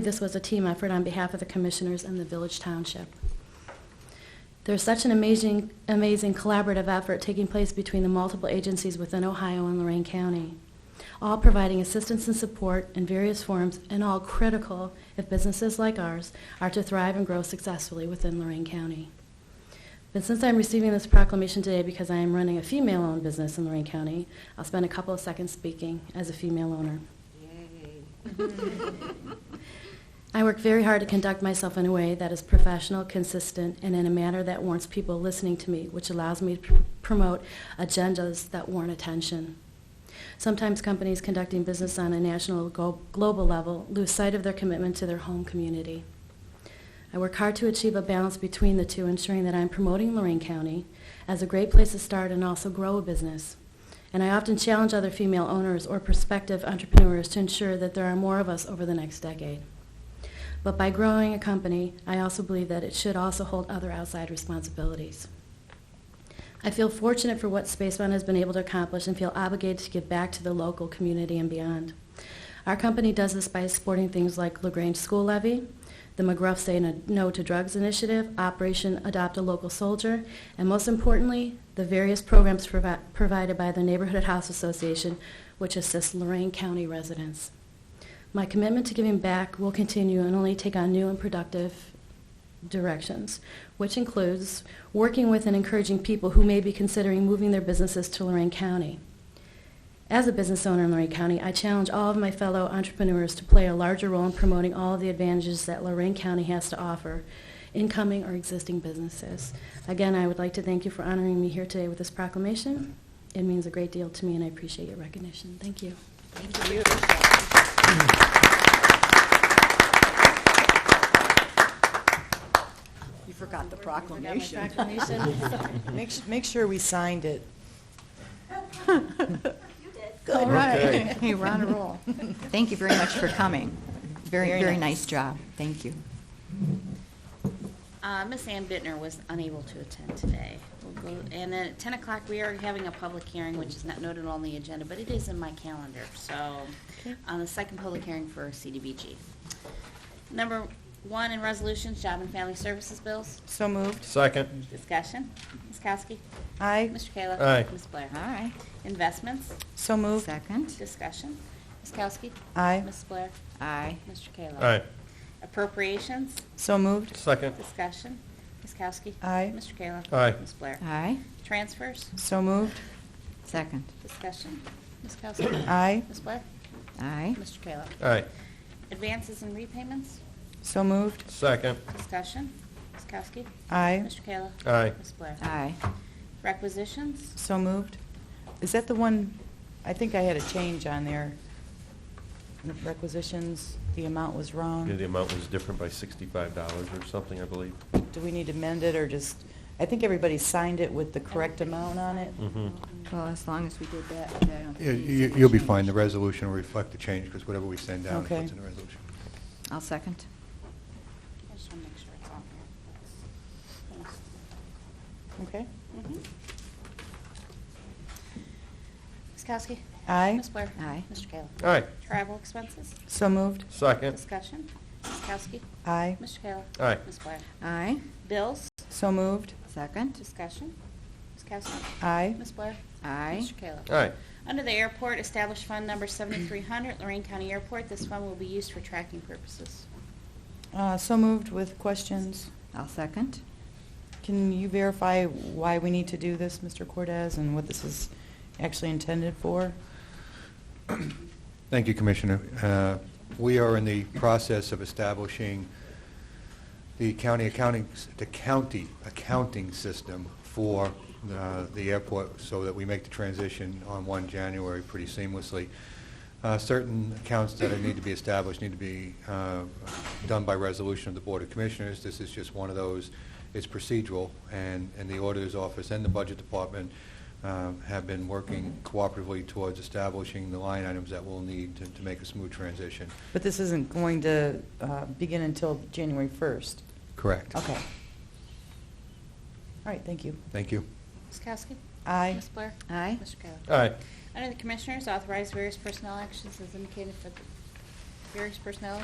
This was a team effort on behalf of the commissioners and the village township. There's such an amazing, amazing collaborative effort taking place between the multiple agencies within Ohio and Lorraine County, all providing assistance and support in various forms and all critical if businesses like ours are to thrive and grow successfully within Lorraine County. But since I'm receiving this proclamation today because I am running a female-owned business in Lorraine County, I'll spend a couple of seconds speaking as a female owner. I work very hard to conduct myself in a way that is professional, consistent, and in a manner that warrants people listening to me, which allows me to pr- promote agendas that warrant attention. Sometimes companies conducting business on a national go- global level lose sight of their commitment to their home community. I work hard to achieve a balance between the two, ensuring that I'm promoting Lorraine County as a great place to start and also grow a business. And I often challenge other female owners or prospective entrepreneurs to ensure that there are more of us over the next decade. But by growing a company, I also believe that it should also hold other outside responsibilities. I feel fortunate for what Spacebound has been able to accomplish and feel obligated to give back to the local community and beyond. Our company does this by supporting things like LaGrange School Levy, the McGruff Say No- No to Drugs Initiative, Operation Adopt a Local Soldier, and most importantly, the various programs provi- provided by the Neighborhood House Association, which assists Lorraine County residents. My commitment to giving back will continue and only take on new and productive directions, which includes working with and encouraging people who may be considering moving their businesses to Lorraine County. As a business owner in Lorraine County, I challenge all of my fellow entrepreneurs to play a larger role in promoting all of the advantages that Lorraine County has to offer, incoming or existing businesses. Again, I would like to thank you for honoring me here today with this proclamation. It means a great deal to me, and I appreciate your recognition. Thank you. Thank you. You forgot the proclamation. Make, su- make sure we signed it. All Okay. right. Hey, we're on a roll. Thank you very much for coming. Very, Very very nice. nice job. Thank you. Uh, Ms. Ann Bittner was unable to attend today. We'll go, and then at ten o'clock, we are having a public hearing, which is not noted on the agenda, but it is in my calendar, so, on the second public hearing for CDBG. Number one in resolutions, job and family services bills, So moved. Second, discussion. Ms. Kowski? Aye. Mr. Kayla? Aye. Ms. Blair? All right. Investments, So moved. Second. discussion. Ms. Kowski? Aye. Ms. Blair? Aye. Mr. Kayla? aye. Appropriations, So moved. Second, discussion. Ms. Kowski? Aye. Mr. Kayla? Aye. Ms. Blair? Aye. Transfers, So moved. Second. Discussion. Ms. Kowski. Aye. Ms. Blair. Aye. Mr. Kayla. aye. Advances and repayments. So moved. Second, Discussion. Ms. Kowski. Aye. Mr. Kayla. aye. Ms. Blair. Aye. Requisitions. So moved. Is that the one, I think I had a change on there. Requisitions, the amount was Yeah, The wrong. amount was different by sixty-five dollars or something, I believe. Do we need to amend it or just, I think everybody signed it with the correct amount on it. Mhm. Well, as long as we did that, I don't think Yeah, we need you- to You'll be change. fine. The resolution will reflect the change, because whatever we send down is Okay. what's in the resolution. I'll second. I just want to make sure it's on here. Okay? Mhm. Ms. Kowski. Aye. Ms. Blair. Aye. Mr. Kayla. Aye. Travel expenses. So moved. Second, Discussion. Ms. Kowski. Aye. Mr. Kayla. Aye. Ms. Blair. Aye. Bills. So moved. Second. Discussion. Ms. Kowski. Aye. Ms. Blair. Aye. Mr. Kayla. aye. Under the airport, establish fund number 7300, Lorraine County Airport. This fund will be used for tracking purposes. Uh, So moved with questions. I'll second. Can you verify why we need to do this, Mr. Cortez, and what this is actually intended for? Thank you, Commissioner. Uh, We are in the process of establishing the county accounting, the county accounting system for uh, the airport, so that we make the transition on 1 January pretty seamlessly. Uh, Certain accounts that need to be established need to be uh, done by resolution of the Board of Commissioners. This is just one of those. It's procedural, and and the Auditor's Office and the Budget Department um, have been working cooperatively towards establishing the line items that we'll need to- to make a smooth transition. But this isn't going to uh, begin until January 1st. Correct. Okay. All right, thank you. Thank you. Ms. Kowski? Aye. Ms. Blair? Aye. Mr. Kayla? Aye. Under the Commissioners, authorize various personnel actions as indicated for the various personnel